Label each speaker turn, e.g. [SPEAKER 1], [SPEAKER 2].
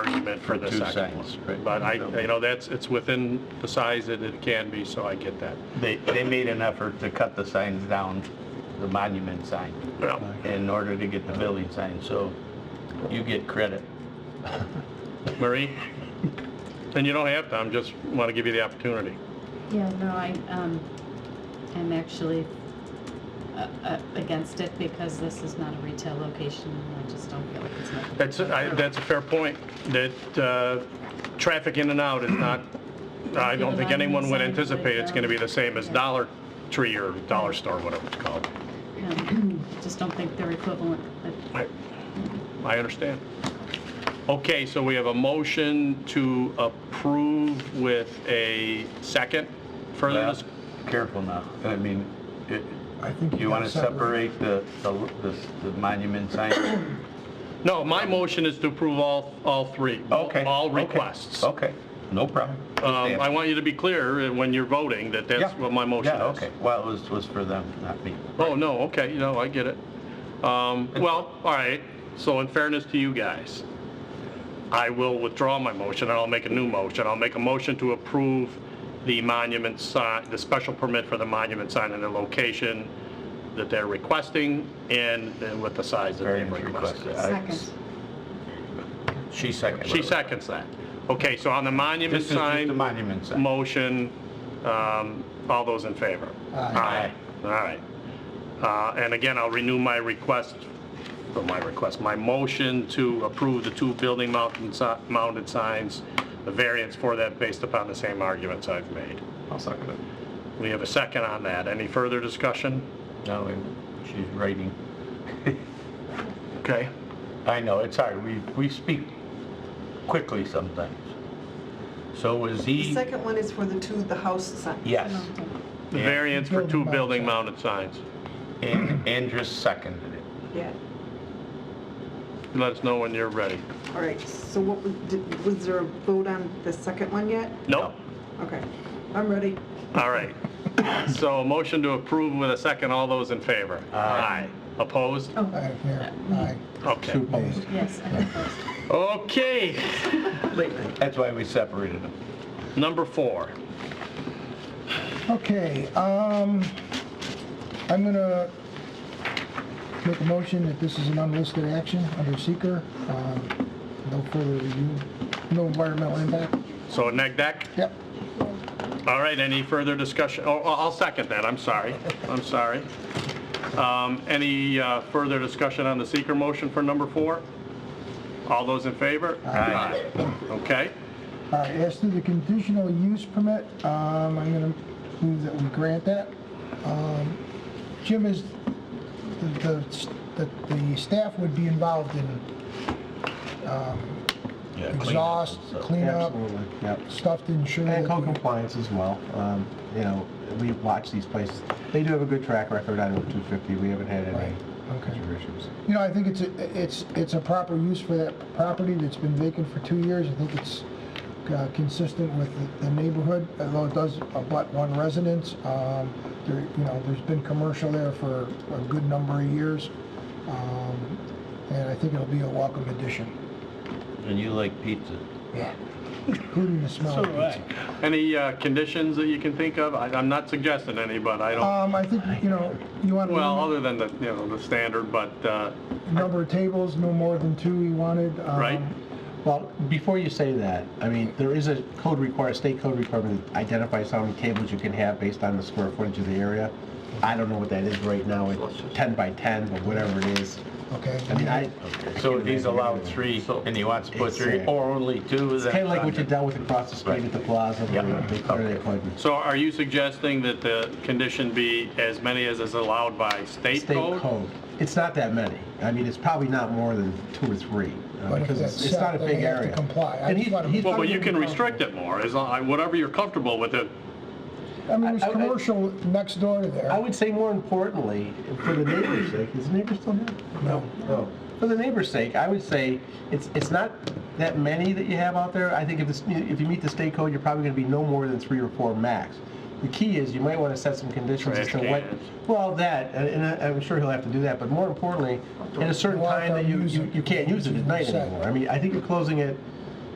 [SPEAKER 1] permit for the
[SPEAKER 2] Two
[SPEAKER 1] second
[SPEAKER 2] signs,
[SPEAKER 1] one.
[SPEAKER 2] right.
[SPEAKER 1] But I, you know, that's, it's within the size that it can be, so I get that.
[SPEAKER 3] They, they made an effort to cut the signs down, the monument sign,
[SPEAKER 1] Well,
[SPEAKER 3] in order to get the building sign, so you get credit.
[SPEAKER 1] Marie? And you don't have to, I'm just want to give you the opportunity.
[SPEAKER 4] Yeah, no, I, um, I'm actually uh, uh, against it because this is not a retail location and I just don't feel like it's my.
[SPEAKER 1] That's, I, that's a fair point, that, uh, traffic in and out is not, I don't think anyone would anticipate it's gonna be the same as Dollar Tree or Dollar Store, whatever it's called.
[SPEAKER 4] um, Just don't think they're equivalent, but
[SPEAKER 1] I I understand. Okay, so we have a motion to approve with a second further,
[SPEAKER 3] Well,
[SPEAKER 1] dis-
[SPEAKER 3] Careful now, I mean, it-
[SPEAKER 5] I think
[SPEAKER 3] you want to
[SPEAKER 5] gotta separate.
[SPEAKER 3] separate the, the the- the monument sign?
[SPEAKER 1] no, my motion is to approve all, all three.
[SPEAKER 3] Okay.
[SPEAKER 1] All
[SPEAKER 3] okay, Oh,
[SPEAKER 1] requests.
[SPEAKER 3] Okay, no problem.
[SPEAKER 1] Um, I
[SPEAKER 3] Understand.
[SPEAKER 1] want you to be clear uh, when you're voting that that's
[SPEAKER 3] Yeah.
[SPEAKER 1] what my motion is.
[SPEAKER 3] Yeah, okay, well, it was, was for them, not me.
[SPEAKER 1] Oh, no, okay, no, I get it. Um, Well, all right, so in fairness to you guys, I will withdraw my motion, and I'll make a new motion. I'll make a motion to approve the monument sign, the special permit for the monument sign and the location that they're requesting, and then with the size that they
[SPEAKER 3] Variance
[SPEAKER 1] requested.
[SPEAKER 3] requested. I-
[SPEAKER 4] second.
[SPEAKER 3] She seconded.
[SPEAKER 1] She seconds that. Okay, so on the
[SPEAKER 3] This
[SPEAKER 1] monument
[SPEAKER 3] is just the
[SPEAKER 1] sign
[SPEAKER 3] monument sign.
[SPEAKER 1] motion, um, all those in favor?
[SPEAKER 5] Aye.
[SPEAKER 1] All right. Uh, And again, I'll renew my request, or my request, my motion to approve the two building mountain si- mounted signs, the variance for that based upon the same arguments I've made.
[SPEAKER 3] I'll second it.
[SPEAKER 1] We have a second on that. Any further discussion?
[SPEAKER 3] No, and she's writing.
[SPEAKER 1] Okay.
[SPEAKER 3] I know, it's hard, we, we speak quickly sometimes. So was
[SPEAKER 6] The
[SPEAKER 3] he?
[SPEAKER 6] second one is for the two, the house signs.
[SPEAKER 3] Yes,
[SPEAKER 1] The variance for two building mounted signs.
[SPEAKER 3] and Andrus seconded it.
[SPEAKER 6] Yeah,
[SPEAKER 1] Let us know when you're ready.
[SPEAKER 6] all right, so what, was- did- was there a vote on the second one yet?
[SPEAKER 1] Nope.
[SPEAKER 6] Okay, I'm ready.
[SPEAKER 1] All right. So a motion to approve with a second. All those in favor? Aye. Opposed?
[SPEAKER 5] Aye, Mayor, aye.
[SPEAKER 1] Okay.
[SPEAKER 5] Two opposed.
[SPEAKER 4] Yes, I think
[SPEAKER 1] Okay.
[SPEAKER 3] That's why we separated them.
[SPEAKER 1] Number four.
[SPEAKER 5] Okay, um, I'm gonna make a motion that this is an unlisted action under seeker. Um, No further review, no environmental impact.
[SPEAKER 1] So neg deck?
[SPEAKER 5] Yep,
[SPEAKER 1] All right, any further discussion? Oh, I'll I'll second that, I'm sorry, I'm sorry. Um, Any uh, further discussion on the seeker motion for number four? All those in favor?
[SPEAKER 3] Aye.
[SPEAKER 1] Okay,
[SPEAKER 5] all right, as to the conditional use permit, um, I'm gonna move that we grant that. Um, Jim is, the, the, the staff would be involved in
[SPEAKER 3] Yeah, clean up and
[SPEAKER 5] exhaust,
[SPEAKER 3] stuff.
[SPEAKER 5] cleanup,
[SPEAKER 7] Absolutely, yep.
[SPEAKER 5] stuff to ensure that.
[SPEAKER 7] And code
[SPEAKER 5] the-
[SPEAKER 7] compliance as well. Um, You know, we watch these places. They do have a good track record out of 250. We haven't had any
[SPEAKER 5] Right, okay.
[SPEAKER 7] major issues.
[SPEAKER 5] You know, I think it's, a- it's, it's a proper use for that property that's been vacant for two years. I think it's uh, consistent with the- the neighborhood, although it does abut one residence. Um, There, you know, there's been commercial there for a good number of years. Um, And I think it'll be a welcome addition.
[SPEAKER 3] And you like pizza.
[SPEAKER 5] Yeah. Including the smell of pizza.
[SPEAKER 1] any uh, conditions that you can think of? I- I'm not suggesting any, but I don't,
[SPEAKER 5] Um, I think, you know, you want to...
[SPEAKER 1] well, other than the, you know, the standard, but, uh,
[SPEAKER 5] Number of tables, no more than two we wanted. um,
[SPEAKER 1] right?
[SPEAKER 7] Well, before you say that, I mean, there is a code require, state code requirement that identifies how many tables you can have based on the square footage of the area. I don't know what that is right now, it's 10 by 10, but whatever it is.
[SPEAKER 5] Okay.
[SPEAKER 7] I mean, I,
[SPEAKER 3] So if he's allowed three, and he wants to put three, or only two,
[SPEAKER 7] it's
[SPEAKER 3] that's...
[SPEAKER 7] kind of like what you
[SPEAKER 3] under-
[SPEAKER 7] dealt with across the street at the plaza,
[SPEAKER 3] Yeah.
[SPEAKER 7] where they cleared the appointments.
[SPEAKER 1] So are you suggesting that the condition be as many as is allowed by state
[SPEAKER 7] State
[SPEAKER 1] code?
[SPEAKER 7] code. It's not that many. I mean, it's probably not more than two or three, uh,
[SPEAKER 5] But if
[SPEAKER 7] because
[SPEAKER 5] that's
[SPEAKER 7] it's it's not a
[SPEAKER 5] set, then
[SPEAKER 7] big
[SPEAKER 5] they have to
[SPEAKER 7] area.
[SPEAKER 5] comply. I
[SPEAKER 7] And
[SPEAKER 5] just
[SPEAKER 7] he's-
[SPEAKER 5] wanna-
[SPEAKER 7] he's
[SPEAKER 1] Well,
[SPEAKER 7] not
[SPEAKER 1] but you
[SPEAKER 7] gonna
[SPEAKER 1] can
[SPEAKER 7] be
[SPEAKER 1] restrict it more, as long, whatever you're comfortable with it.
[SPEAKER 5] I mean,
[SPEAKER 7] I- I-
[SPEAKER 5] there's commercial next door to there.
[SPEAKER 7] I would say more importantly, for the neighbor's sake, is the neighbor still there?
[SPEAKER 5] No.
[SPEAKER 7] No. For the neighbor's sake, I would say it's, it's not that many that you have out there. I think if it's, if you meet the state code, you're probably gonna be no more than three or four max. The key is you might wanna set some conditions as to
[SPEAKER 1] Trash
[SPEAKER 7] what,
[SPEAKER 1] cans.
[SPEAKER 7] well, that, and and I- I'm sure he'll have to do that, but more importantly, at a certain
[SPEAKER 5] Well,
[SPEAKER 7] time that you, you you can't use it at night
[SPEAKER 5] Set.
[SPEAKER 7] anymore. I mean, I think you're closing it